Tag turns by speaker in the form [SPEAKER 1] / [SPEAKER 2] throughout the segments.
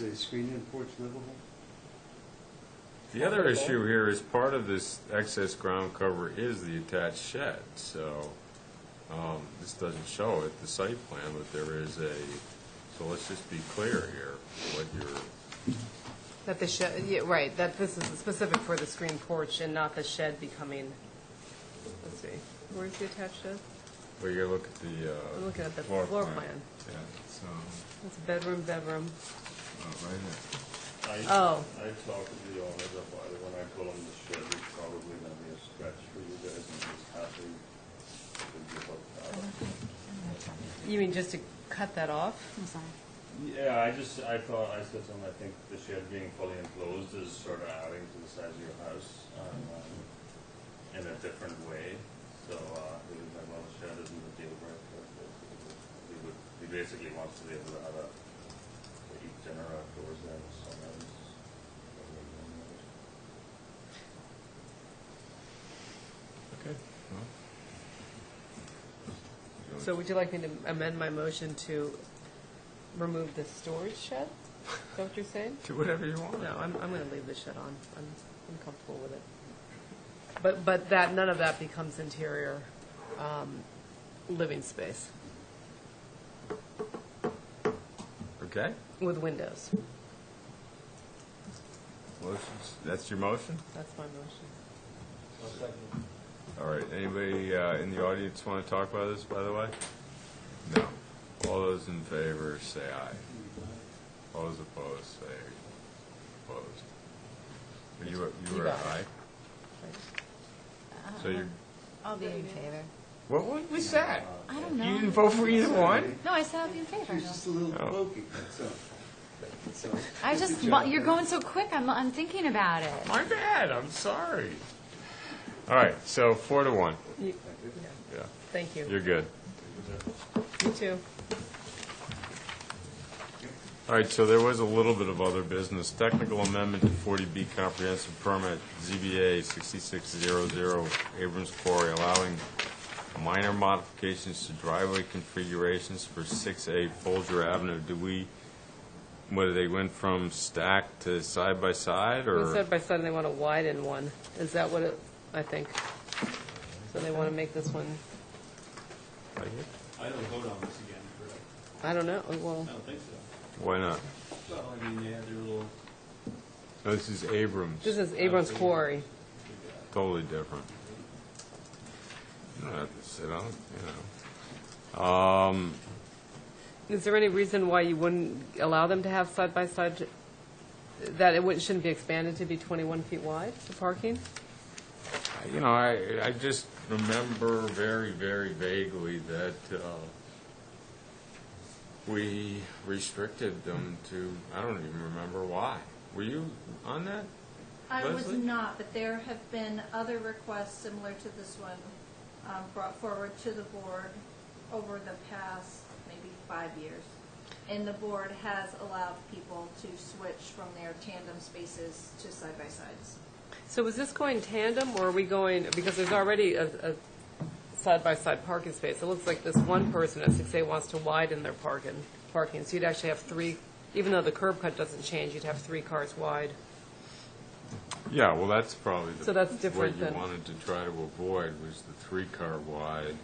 [SPEAKER 1] The screened-in porch livable?
[SPEAKER 2] The other issue here is part of this excess ground cover is the attached shed, so, um, this doesn't show it, the site plan, but there is a, so let's just be clear here, what you're,
[SPEAKER 3] That the shed, yeah, right, that this is specific for the screen porch and not the shed becoming, let's see, where's the attached shed?
[SPEAKER 2] well, you gotta look at the, uh.
[SPEAKER 3] I'm looking at the floor plan.
[SPEAKER 2] Yeah, so,
[SPEAKER 3] It's bedroom, bedroom.
[SPEAKER 2] uh, right here.
[SPEAKER 4] I-
[SPEAKER 3] Oh.
[SPEAKER 4] I talked to the owners about it, when I told them the shed was probably gonna be a stretch for you guys, and I was happy to give up that.
[SPEAKER 3] You mean just to cut that off?
[SPEAKER 5] I'm sorry.
[SPEAKER 4] Yeah, I just, I thought, I said something, I think the shed being fully enclosed is sort of adding to the size of your house, um, in a different way, so, uh, he was like, well, the shed isn't a deal breaker. He would, he basically wants to be able to have a, to eat dinner outdoors there in the summer.
[SPEAKER 2] Okay. well.
[SPEAKER 3] So would you like me to amend my motion to remove the storage shed? Is that what you're saying?
[SPEAKER 2] Do whatever you want.
[SPEAKER 3] No, I'm, I'm going to leave the shed on. I'm, I'm comfortable with it. But, but that, none of that becomes interior um, living space
[SPEAKER 2] Okay,
[SPEAKER 3] with windows.
[SPEAKER 2] motions, that's your motion?
[SPEAKER 3] That's my motion.
[SPEAKER 2] All right, anybody uh, in the audience want to talk about this, by the way? No. All those in favor, say aye. All those opposed, say opposed. You were, you were
[SPEAKER 3] You got it.
[SPEAKER 2] aye? So you,
[SPEAKER 5] I'll be in favor.
[SPEAKER 2] what what was that?
[SPEAKER 5] I don't
[SPEAKER 2] You didn't
[SPEAKER 5] know.
[SPEAKER 2] vote for either one?
[SPEAKER 5] No, I said I'll be in favor.
[SPEAKER 1] She's just a little
[SPEAKER 2] Oh.
[SPEAKER 1] pokey, that's all. That's all.
[SPEAKER 5] I just,
[SPEAKER 1] Good
[SPEAKER 5] well,
[SPEAKER 1] job.
[SPEAKER 5] you're going so quick, I'm, I'm thinking about it.
[SPEAKER 2] My bad, I'm sorry. All right, so four to one.
[SPEAKER 3] You-
[SPEAKER 2] Yeah,
[SPEAKER 3] Thank you.
[SPEAKER 2] you're good.
[SPEAKER 3] You too.
[SPEAKER 2] All right, so there was a little bit of other business. Technical amendment to 40B comprehensive permit, ZBA 6600 Abrams Quarry, allowing minor modifications to driveway configurations for 6A Folger Avenue. Do we, whether they went from stack to side by side,
[SPEAKER 3] Well,
[SPEAKER 2] or?
[SPEAKER 3] side by side, they want to widen one. Is that what it, I think? So they want to make this one,
[SPEAKER 6] I don't vote on this again, correct?
[SPEAKER 3] I don't know, well,
[SPEAKER 6] I don't think so.
[SPEAKER 2] Why not?
[SPEAKER 6] Well, I mean, they had their little,
[SPEAKER 2] No, This is Abrams,
[SPEAKER 3] this is Abrams Quarry.
[SPEAKER 2] totally different. You don't have to sit on, it, you know. Um,
[SPEAKER 3] Is there any reason why you wouldn't allow them to have side by side, that it wouldn't, shouldn't be expanded to be 21 feet wide, the parking?
[SPEAKER 2] You know, I, I just remember very, very vaguely that uh, we restricted them to, I don't even remember why. Were you on that?
[SPEAKER 7] I was
[SPEAKER 2] Leslie?
[SPEAKER 7] not, but there have been other requests similar to this one um, brought forward to the board over the past maybe five years. And the board has allowed people to switch from their tandem spaces to side-by-sides.
[SPEAKER 3] So is this going tandem, or are we going, because there's already a, a side-by-side parking space. It looks like this one person at six A wants to widen their parking, parking, so you'd actually have three, even though the curb cut doesn't change, you'd have three cars wide.
[SPEAKER 2] Yeah, well, that's probably the.
[SPEAKER 3] So that's different
[SPEAKER 2] What
[SPEAKER 3] than-
[SPEAKER 2] you wanted to try to avoid was the three-car wide,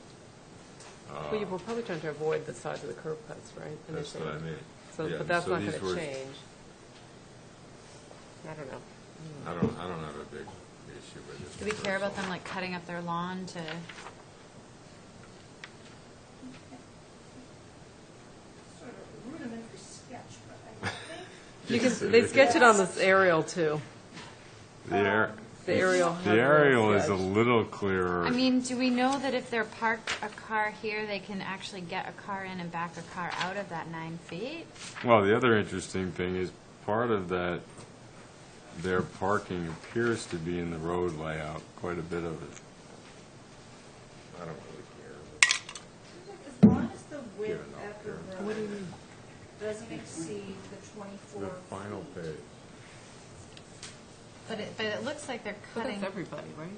[SPEAKER 3] Well, you were probably trying to avoid the size of the curb cuts, right?
[SPEAKER 2] Uh, that's what I
[SPEAKER 3] initially?
[SPEAKER 2] mean.
[SPEAKER 3] So,
[SPEAKER 2] Yeah,
[SPEAKER 3] but that's
[SPEAKER 2] so
[SPEAKER 3] not
[SPEAKER 2] these
[SPEAKER 3] gonna
[SPEAKER 2] were-
[SPEAKER 3] change. I don't know.
[SPEAKER 2] I don't, I don't have a big issue with it.
[SPEAKER 5] Do we care about them like cutting up their lawn to,
[SPEAKER 7] Sort of rudimentary sketch, but I think
[SPEAKER 3] You can, they sketch it on this aerial, too.
[SPEAKER 2] The air-
[SPEAKER 3] The aerial. has
[SPEAKER 2] the
[SPEAKER 3] a little
[SPEAKER 2] aerial is a
[SPEAKER 3] sketch.
[SPEAKER 2] little clearer.
[SPEAKER 5] I mean, do we know that if they're parked a car here, they can actually get a car in and back a car out of that nine feet?
[SPEAKER 2] Well, the other interesting thing is, part of that, their parking appears to be in the road layout, quite a bit of it. I don't really
[SPEAKER 7] as long as the width
[SPEAKER 2] Hmm. Yeah, no,
[SPEAKER 7] of the
[SPEAKER 2] yeah.
[SPEAKER 7] road doesn't exceed the 24
[SPEAKER 2] The final
[SPEAKER 7] feet.
[SPEAKER 2] page.
[SPEAKER 5] But it, but it looks like they're
[SPEAKER 3] But
[SPEAKER 5] cutting,
[SPEAKER 3] that's everybody, right?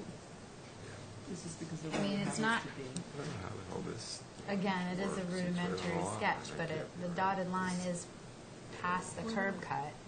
[SPEAKER 3] This is because of.
[SPEAKER 5] I mean, it's not-
[SPEAKER 2] I don't know how the hell this,
[SPEAKER 5] again, it is
[SPEAKER 2] Or it's
[SPEAKER 5] a
[SPEAKER 2] a
[SPEAKER 5] rudimentary
[SPEAKER 2] lawn,
[SPEAKER 5] sketch,
[SPEAKER 2] I
[SPEAKER 5] but it,
[SPEAKER 2] can't
[SPEAKER 5] the dotted line is past the curb cut.